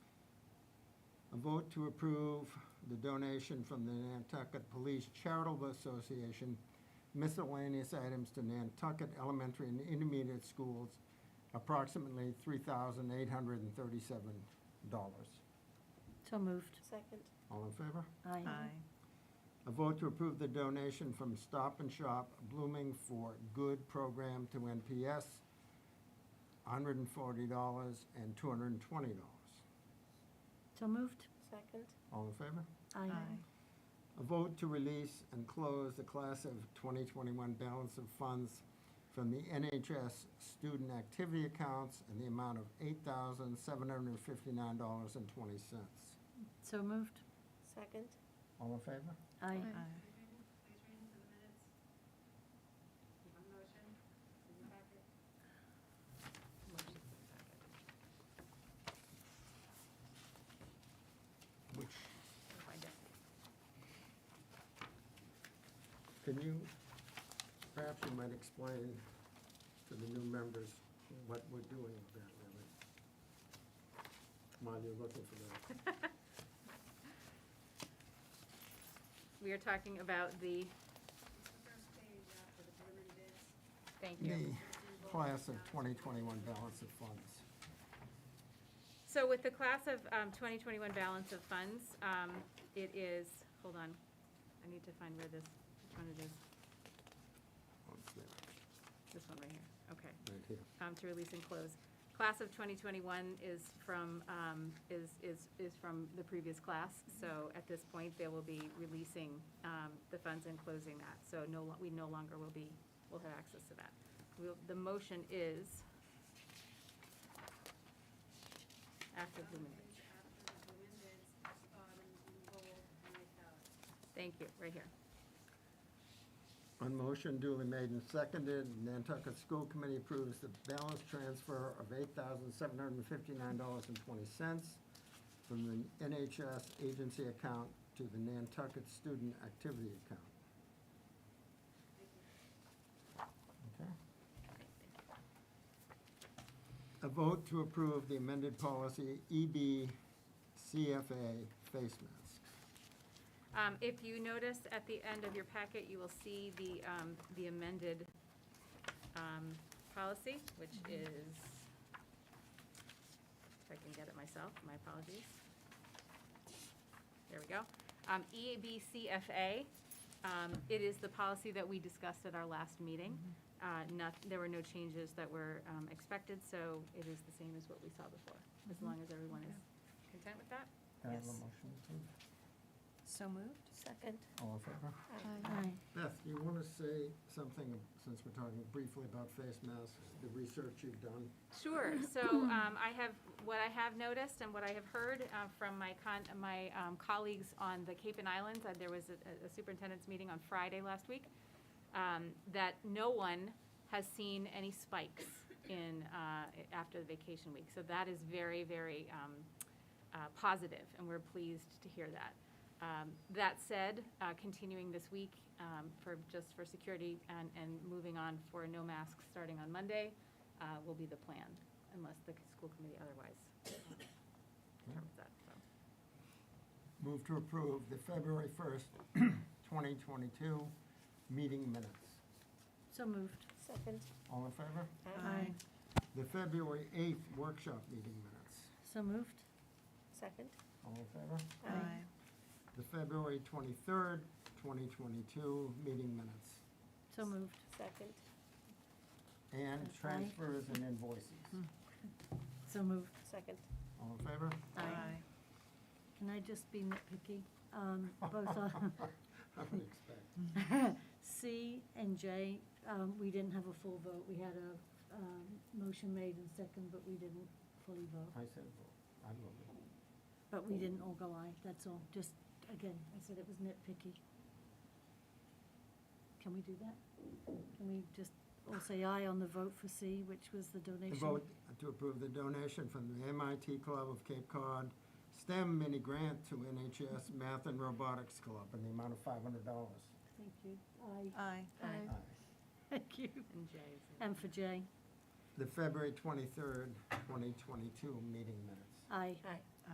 A vote to approve the donation from the Nantucket Police Charitable Association miscellaneous items to Nantucket Elementary and Intermediate Schools, approximately $3,837. So moved. Second. All in favor? Aye. A vote to approve the donation from Stop and Shop Blooming for Good program to NPS, $140 and $220. So moved. Second. All in favor? A vote to release and close the class of 2021 balance of funds from the NHS student activity accounts in the amount of $8,759.20. So moved. Second. All in favor? Aye. Please read into the minutes. On motion, in the packet. Motion in the packet. Which, I'll Find it. can you, perhaps you might explain to the new members what we're doing with that, really? While you're looking for that. We are talking about the, It's the first page after the preliminary bids. thank The you. class of 2021 balance of funds. So with the class of um, 2021 balance of funds, um, it is, hold on, I need to find where this, which one it is. What's that? This one right here, okay. Right here. um, to release and close. Class of 2021 is from, um, is, is, is from the previous class, so at this point, they will be releasing um, the funds and closing that. So no, lo- we no longer will be, will have access to that. We'll- The motion is after Blooming. It's After the preliminary bids, it's bottom in bold and italics. Thank you, right here. On motion duly made and seconded, Nantucket School Committee approves the balance transfer of $8,759.20 from the NHS agency account to the Nantucket Student Activity Account. Okay. A vote to approve the amended policy E EBCFA face masks. Um, If you notice, at the end of your packet, you will see the um, the amended um, policy, which is, if I can get it myself, my apologies. There we go. Um, EBCFA, um, it is the policy that we discussed at our last meeting. Uh, Not, there were no changes that were um, expected, so it is the same as what we saw before, as long as everyone is content with that. Can I have a Yes. motion, please? So moved. Second. All in favor? Aye. Beth, you want to say something, since we're talking briefly about face masks, the research you've done? Sure. So um, I have, what I have noticed and what I have heard uh, from my con, my um, colleagues on the Cape and Islands, uh, there was a a superintendent's meeting on Friday last week, um, that no one has seen any spikes in, uh, after the vacation week. So that is very, very um, uh, positive, and we're pleased to hear that. Um, That said, uh, continuing this week um, for, just for security and, and moving on for no masks starting on Monday uh, will be the plan, unless the school committee otherwise determines that, so. Move to approve the February 1st, 2022 meeting minutes. So moved. Second. All in favor? Aye. The February 8th workshop meeting minutes. So moved. Second. All in favor? Aye. The February 23rd, 2022 meeting minutes. So moved. Second. And transfers and invoices. Hmm. So moved. Second. All in favor? Aye. Can I just be nitpicky? Um, Both on I would expect. C and J, um, we didn't have a full vote. We had a um, motion made and second, but we didn't fully vote. I said, vote. I love it. But we didn't all go aye, that's all. Just, again, I said it was nitpicky. Can we do that? Can we just all say aye on the vote for C, which was the The donation? vote to approve the donation from the MIT Club of Cape Cod STEM mini grant to NHS Math and Robotics Club in the amount of $500. Thank you. Aye. Aye. Aye. Aye. Thank you. And Jay is in. And for J, The February 23rd, 2022 meeting minutes. aye. Aye.